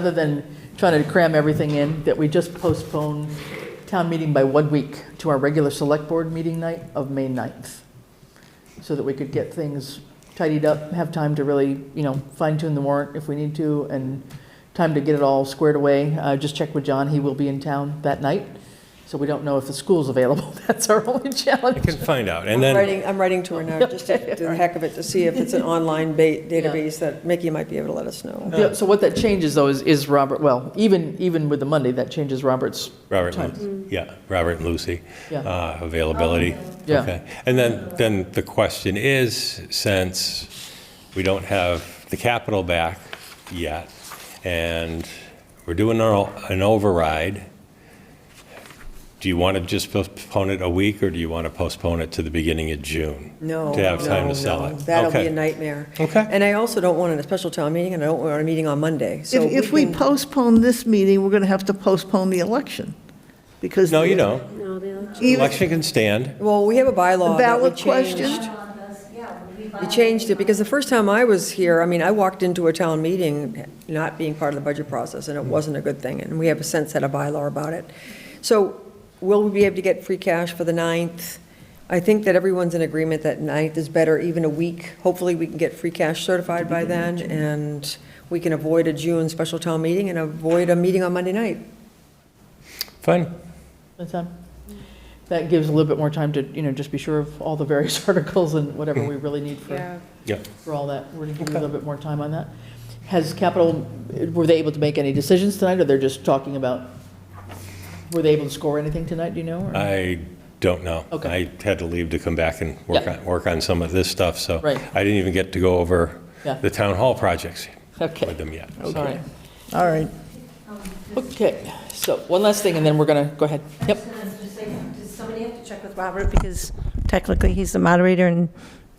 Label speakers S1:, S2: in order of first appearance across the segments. S1: Other than trying to cram everything in, that we just postpone town meeting by one week to our regular select board meeting night of May 9th, so that we could get things tidied up, have time to really, you know, fine tune the warrant if we need to, and time to get it all squared away. Uh, Just check with John, he will be in town that night, so we don't know if the school's available. That's our only
S2: I
S1: challenge.
S2: can find out, and
S3: I'm
S2: then,
S3: writing, I'm writing to her now, just to do the heck of it, to see if it's an online ba- database that Mickey might be able to let us
S2: uh,
S3: know.
S1: Yeah, So what that changes though is, is Robert, well, even, even with the Monday, that changes Robert's
S2: Robert,
S1: time.
S2: Lu- yeah, Robert and Lucy,
S1: Yeah.
S2: uh, availability.
S1: Yeah.
S2: Okay. And then, then the question is, since we don't have the capital back yet, and we're doing our- an override, do you want to just postpone it a week, or do you want to postpone it to the beginning of June?
S3: No.
S2: To have time
S3: no,
S2: to sell
S3: no.
S2: it?
S3: That'll be
S2: Okay.
S3: a nightmare.
S2: Okay.
S3: And I also don't want a special town meeting, and I don't want a meeting on Monday, so.
S4: If, if we
S3: can-
S4: postpone this meeting, we're going to have to postpone the election, because.
S2: No, you don't.
S5: No, the election.
S4: Even,
S2: Election can stand.
S3: Well, we have a bylaw that we
S4: Ballot
S3: changed.
S4: question?
S3: We changed it, because the first time I was here, I mean, I walked into a town meeting not being part of the budget process, and it wasn't a good thing, and we have a sense had a bylaw about it. So will we be able to get free cash for the 9th? I think that everyone's in agreement that 9th is better, even a week. Hopefully, we can get free cash certified by then, and we can avoid a June special town meeting and avoid a meeting on Monday night.
S2: Fine.
S1: That's fine. That gives a little bit more time to, you know, just be sure of all the various articles and whatever we really need for,
S2: Yeah.
S1: for all that. We're going to give you a little bit more time on that. Has Capital, were they able to make any decisions tonight, or they're just talking about, were they able to score anything tonight, do you know? or-
S2: I don't know.
S1: Okay.
S2: I had to leave to come back and work
S1: Yeah.
S2: on, work on some of this stuff, so.
S1: Right.
S2: I didn't even get to go over
S1: Yeah.
S2: the town hall projects with
S1: Okay,
S2: them yet. so.
S1: sorry.
S4: all right.
S1: Okay, so one last thing, and then we're going to, go ahead. Yep.
S5: Does somebody have to check with Robert, because technically he's the moderator, and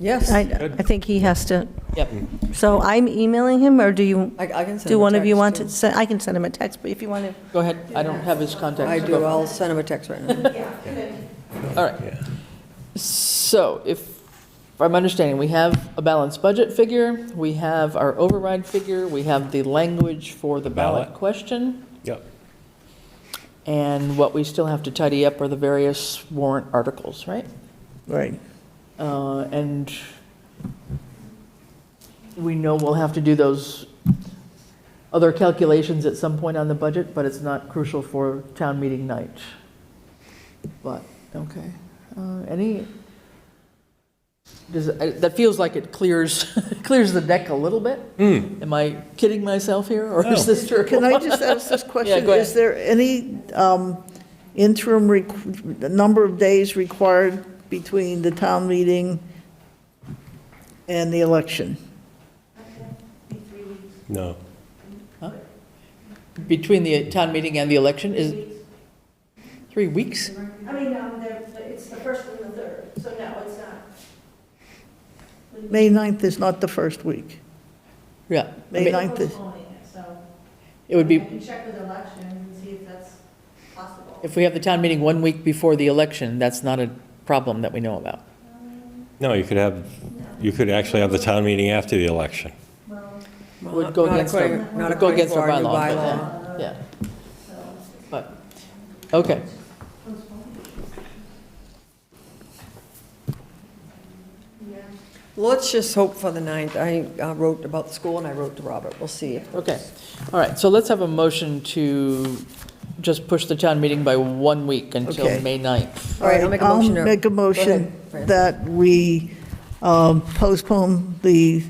S3: Yes,
S5: I,
S3: I
S5: I think he has to,
S1: Yep.
S5: so I'm emailing him, or do you,
S3: I can send
S5: do
S3: him a
S5: one of you
S3: text,
S5: want
S3: too.
S5: to, send? I can send him a text, but if you want to.
S1: Go ahead. I don't have his contact.
S3: I do, I'll send him a text right now.
S1: All right. So if, if I'm understanding, we have a balanced budget figure, we have our override figure, we have the language for the ballot
S2: Ballot.
S1: question,
S2: Yep.
S1: and what we still have to tidy up are the various warrant articles, right?
S4: Right.
S1: Uh, And we know we'll have to do those other calculations at some point on the budget, but it's not crucial for town meeting night. But, okay. Uh, Any, does, I- that feels like it clears, clears the deck a little bit? Am I kidding myself here, or is
S2: No.
S1: this true?
S4: Can I just ask this question?
S1: go ahead.
S4: Is there any um, interim, requ- number of days required between the town meeting and the election?
S2: No.
S1: Between the town meeting and the election, is? Three weeks?
S6: I mean, um, they're- it's the first and the third, so no, it's not.
S4: May 9th is not the first week.
S1: Yeah. I
S4: May
S1: mean,
S4: 9th is,
S6: Postponing it, so.
S1: It would
S6: I
S1: be,
S6: can check with election and see if that's possible.
S1: If we have the town meeting one week before the election, that's not a problem that we know about.
S2: No, you could have, you could actually have the town meeting after the election.
S3: Well,
S1: Would go
S3: not
S1: against our,
S3: according- not
S1: would go against our
S3: according to
S1: bylaw.
S3: our
S1: but
S3: new
S1: yeah, Yeah. But, okay.
S3: Let's just hope for the 9th. I uh, wrote about the school and I wrote to Robert. We'll see. if-
S1: Okay, all right, so let's have a motion to just push the town meeting by one week until
S4: Okay.
S1: May 9th.
S3: All right, I'll make a motion. to-
S4: make a motion
S3: Fran.
S4: that we um, postpone the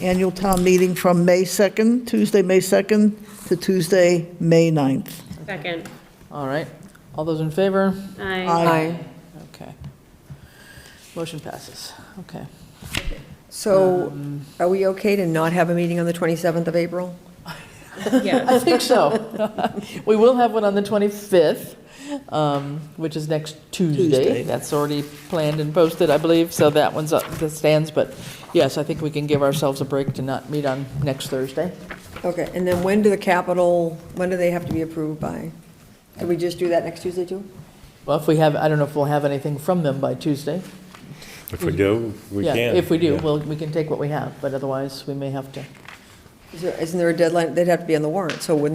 S4: annual town meeting from May 2nd, Tuesday, May 2nd, to Tuesday, May 9th.
S5: Second.
S1: All right, all those in favor?
S5: Aye.
S3: Aye.
S1: Okay. Motion passes, okay.
S3: So are we okay to not have a meeting on the 27th of April?
S5: Yeah.
S1: I think so. We will have one on the 25th, um, which is next Tuesday.
S4: Tuesday.
S1: That's already planned and posted, I believe, so that one's up, that stands. But yes, I think we can give ourselves a break to not meet on next Thursday.
S3: Okay, and then when do the capital, when do they have to be approved by? Can we just do that next Tuesday, too?
S1: Well, if we have, I don't know if we'll have anything from them by Tuesday.
S2: If we do,
S1: Mm-hmm.
S2: we
S1: Yeah,
S2: can.
S1: If we do,
S2: Yeah.
S1: well, we can take what we have, but otherwise, we may have to
S3: Is there- Isn't there a deadline? They'd have to be on the warrant, so wouldn't